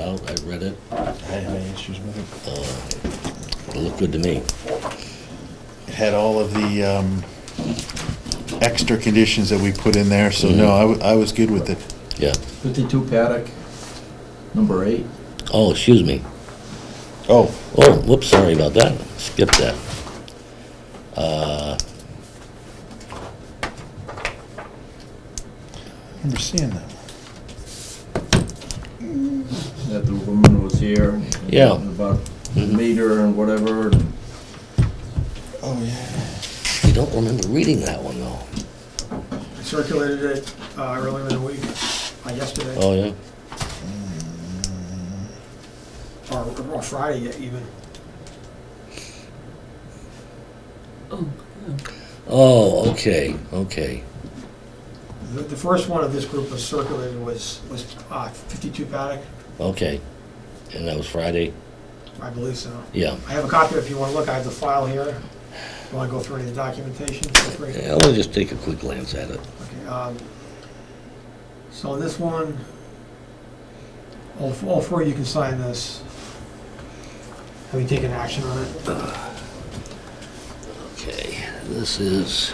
out, I read it, I had any issues with it. it looked good to me. It had all of the um, extra conditions that we put in there, so no, I wa- I was good with it. Yeah. 52 Paddock, number eight. Oh, excuse me. Oh, Oh, whoops, sorry about that. Skip that. Uh, I remember seeing that. That the woman was here. Yeah. Mm-hmm. About the meter and whatever. Oh, yeah. I don't remember reading that one, though. I circulated it uh, earlier in the week, uh, yesterday, Oh, yeah? or or Friday even. Oh, okay, okay. The the first one of this group was circulated was was uh, 52 Paddock, Okay. And that was Friday? I believe so. Yeah. I have a copy if you want to look, I have the file here. You Want to go through any of the documentation? Feel free. Yeah, I'll just take a quick glance at it. Okay, um, So this one, all f- all four of you can sign this. Have you taken action on it? Okay, this is,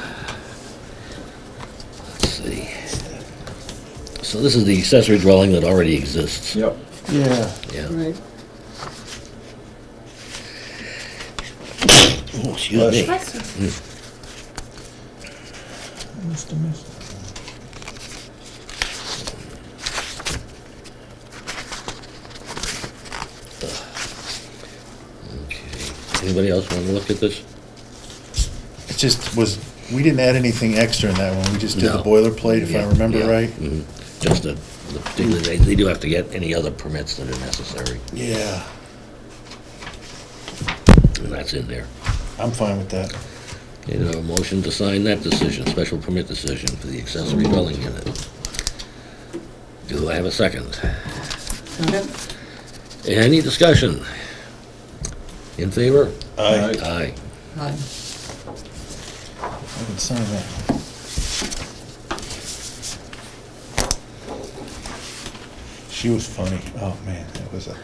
let's see. So this is the accessory dwelling that already exists. Yep. Yeah. Yeah. Right. Oh, Excuse me. Must have missed it. Okay. Anybody else want to look at this? It just was, we didn't add anything extra in that one, we just did the No. boilerplate, if I Yeah, remember yeah, right. mhm. Just the, the particular, they, they do have to get any other permits that are necessary, Yeah, and that's in there. I'm fine with that. Okay, now a motion to sign that decision, special permit decision for the accessory dwelling unit. Do I have a second? Any discussion? In favor? I Aye. Aye. Hi. I can sign that. She was funny, oh, man, that was a,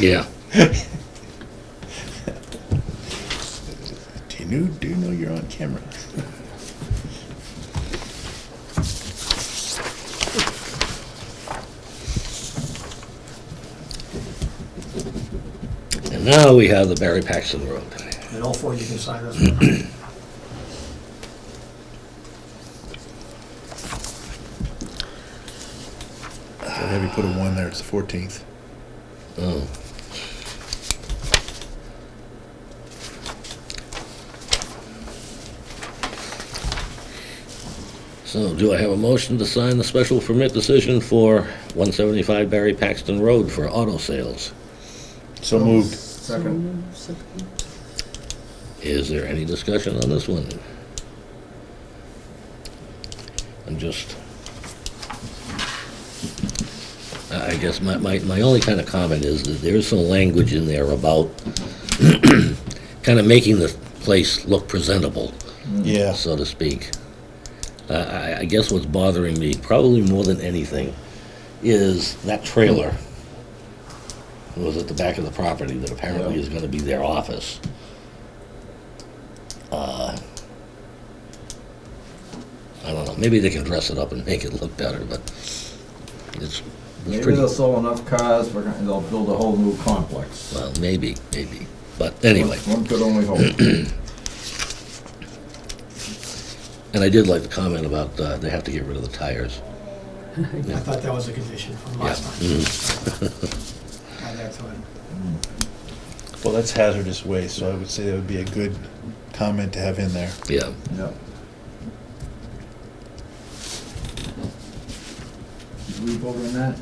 Yeah. do you know, do you know you're on camera? And now we have the Barry Paxton Road. And all four of you can sign this one. So have you put a one there, it's the fourteenth. Oh. So do I have a motion to sign the special permit decision for 175 Barry Paxton Road for auto sales? So moved. Second. Second. Is there any discussion on this one? I'm just, I I guess my, my, my only kind of comment is that there is some language in there about kind of making the place look presentable, Yeah, so to speak. I- I, I guess what's bothering me, probably more than anything, is that trailer was at the back of the property that apparently Yeah. is gonna be their office. Uh, I don't know, maybe they can dress it up and make it look better, but it's, it's Maybe pretty, they'll sell enough cars, we're gonna- they'll build a whole new complex. well, maybe, maybe, but anyway. One could only hope. And I did like the comment about, uh, they have to get rid of the tires. I thought that was a condition from last Yeah. time. Add that to it. well, that's hazardous waste, so I would say that would be a good comment to have in there. Yeah. Yep. Did we vote on that?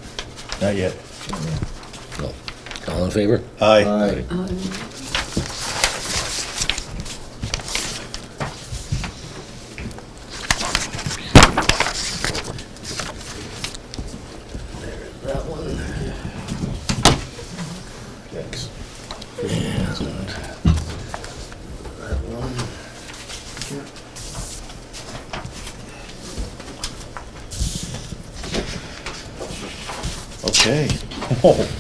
Not yet. No. All in favor? Aye. Aye. Hi. That one. Thanks. That one. Okay. Oh,